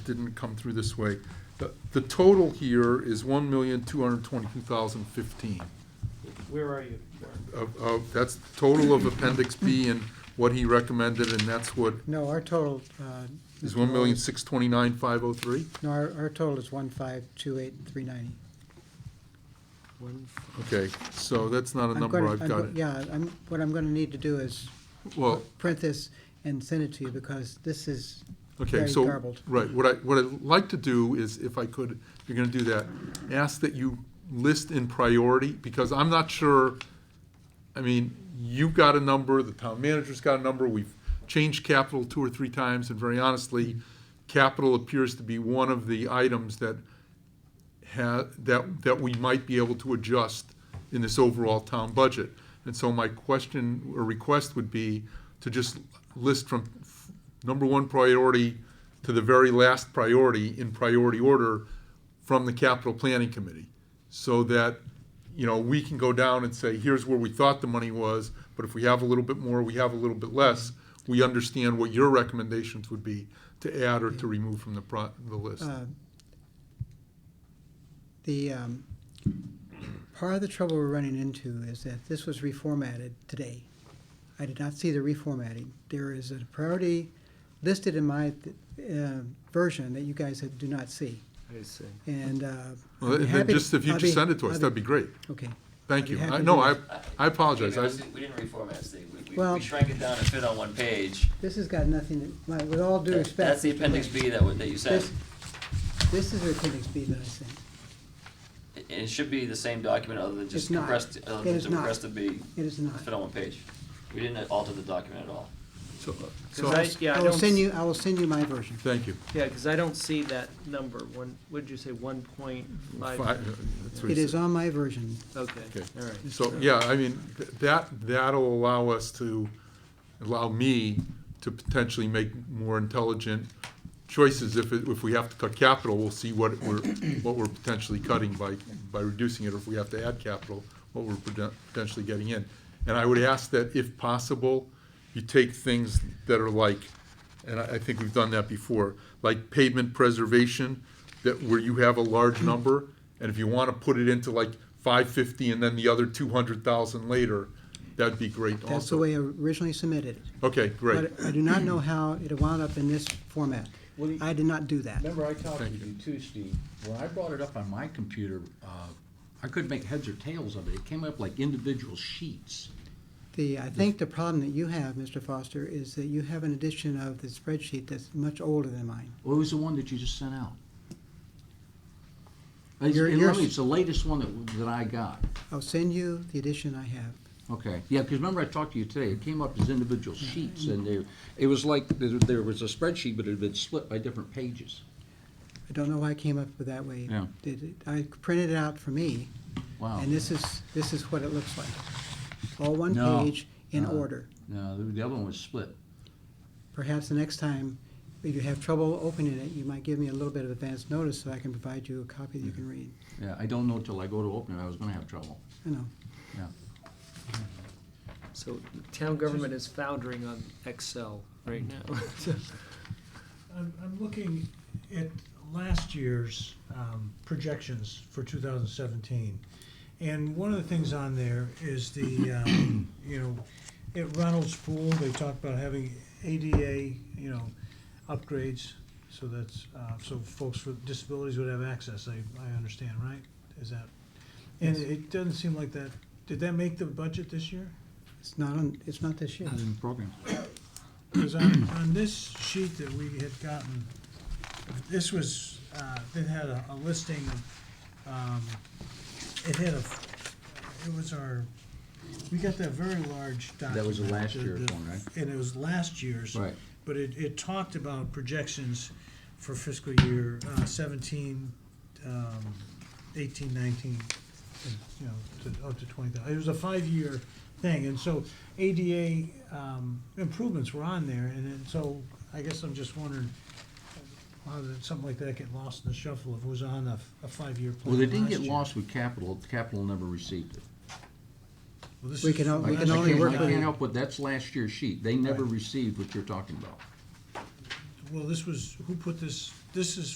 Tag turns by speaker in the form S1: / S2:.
S1: didn't come through this way. The, the total here is one million, two hundred twenty-two thousand fifteen.
S2: Where are you? Mark?
S1: Of, of, that's the total of appendix B and what he recommended, and that's what,
S3: No, our total. uh,
S1: is
S3: Mr.
S1: one million,
S3: Lowell,
S1: six twenty-nine, five oh three?
S3: No, our, our total is one five two eight three ninety.
S1: Okay, so that's not a number, I've got it.
S3: Yeah, I'm, what I'm gonna need to do is
S1: Well,
S3: print this and send it to you because this is
S1: Okay,
S3: very
S1: so,
S3: garbled.
S1: right, what I, what I'd like to do is, if I could, if you're gonna do that, ask that you list in priority, because I'm not sure, I mean, you've got a number, the town manager's got a number, we've changed capital two or three times, and very honestly, capital appears to be one of the items that ha, that, that we might be able to adjust in this overall town budget. And so my question or request would be to just list from f- number one priority to the very last priority in priority order from the capital planning committee. So that, you know, we can go down and say, here's where we thought the money was, but if we have a little bit more, we have a little bit less, we understand what your recommendations would be to add or to remove from the pro, the list.
S3: uh, the, um, part of the trouble we're running into is that this was reformatted today. I did not see the reformatting. There is a priority listed in my, uh, version that you guys do not see.
S4: I see.
S3: And, uh.
S1: Well,
S3: I'd be
S1: then
S3: happy-
S1: just if you
S3: I'll
S1: just
S3: be-
S1: send it to us,
S3: I'll
S1: that'd be great.
S3: Okay,
S1: Thank
S3: I'd be
S1: you.
S3: happy
S1: I,
S3: to
S1: no,
S3: do
S1: I,
S3: that.
S1: I apologize. I,
S5: We didn't reformat this thing. We- We,
S3: Well-
S5: we shrank it down to fit on one page.
S3: this has got nothing, to- like, with all due respect.
S5: That's the
S3: Mr.
S5: appendix
S3: Lynch,
S5: B that, wa- that you sent.
S3: This, this is appendix B that I sent.
S5: It- It should be the same document other than
S3: It's
S5: just
S3: not.
S5: compressed, other
S3: It
S5: than
S3: is not.
S5: compressed to be,
S3: It is not.
S5: fit on one page. We didn't alter the document at all.
S1: so, so,
S4: Cause I, yeah, I
S3: I
S4: don't.
S3: will send
S4: s-
S3: you, I will send you my version.
S1: thank you.
S4: Yeah, cause I don't see that number, one, what'd you say, one point
S1: Fi-
S4: five?
S1: uh, that's what he
S3: It is
S1: said.
S3: on my version.
S4: Okay,
S1: Okay.
S4: all right.
S1: So, yeah, I mean, th- that, that'll allow us to, allow me to potentially make more intelligent choices. If, it- if we have to cut capital, we'll see what we're, what we're potentially cutting by, by reducing it. Or if we have to add capital, what we're poten- potentially getting in. And I would ask that if possible, you take things that are like, and I, I think we've done that before, like pavement preservation, that where you have a large number, and if you wanna put it into like five fifty and then the other two hundred thousand later, that'd be great also.
S3: That's the way I originally submitted. it.
S1: Okay, great,
S3: But I do not know how it wound up in this format.
S6: Well, you-
S3: I did not do that.
S6: Remember, I talked
S1: Thank
S6: with
S1: you.
S6: you too, Steve. When I brought it up on my computer, uh, I couldn't make heads or tails of it. It came up like individual sheets.
S3: The, I think the problem that you have, Mr. Foster, is that you have an edition of the spreadsheet that's much older than mine.
S6: What was the one that you just sent out? It's,
S3: Your-
S6: and
S3: yours-
S6: let me- it's the latest one that, that I got.
S3: I'll send you the edition I have.
S6: Okay, yeah, because remember I talked to you today, it came up as individual sheets and there, it was like there, there was a spreadsheet, but it had been split by different pages.
S3: I don't know why I came up with that way.
S6: Yeah.
S3: Did it- I printed it out for me,
S6: Wow.
S3: and this is, this is what it looks like. All one
S6: No, Uh-huh.
S3: page in
S6: no.
S3: order.
S6: No, the- the other one was split.
S3: Perhaps the next time, if you have trouble opening it, you might give me a little bit of advance notice so I can provide you a copy that you can read.
S6: Yeah, I don't know till I go to open it, I was gonna have trouble.
S3: I know.
S6: Yeah,
S4: So town government is foundering on Excel right now.
S7: I'm, I'm looking at last year's um, projections for 2017. And one of the things on there is the, um, you know, at Ronald's Pool, they talk about having ADA, you know, upgrades. So that's, uh, so folks with disabilities would have access, I, I understand, right? Is that, and it doesn't seem like that, did that make the budget this year?
S3: It's not on, it's not this year.
S6: Not in the program.
S7: Because on, on this sheet that we had gotten, this was, uh, it had a, a listing of, um, it had a, it was our, we got that very large document.
S6: That was the last
S7: the-
S6: year's
S7: the-
S6: one, right?
S7: And it was last year's.
S6: Right.
S7: But it, it talked about projections for fiscal year, uh, seventeen, um, eighteen, nineteen, and, you know, to, up to twenty thousand. It was a five-year thing, and so ADA, um, improvements were on there, and then, so I guess I'm just wondering, uh, how did something like that get lost in the shuffle if it was on a, f- a five-year plan
S6: Well, they didn't
S7: last
S6: get
S7: year?
S6: lost with capital, capital never received it.
S7: Well, this
S3: We
S7: is
S3: can al-
S7: from
S3: we
S6: I
S3: can
S7: last
S6: I
S3: only
S7: year.
S6: can't-
S3: work
S6: I
S3: with-
S6: can't help with, that's last year's sheet, they never
S7: Right.
S6: received what you're talking about.
S7: Well, this was, who put this this is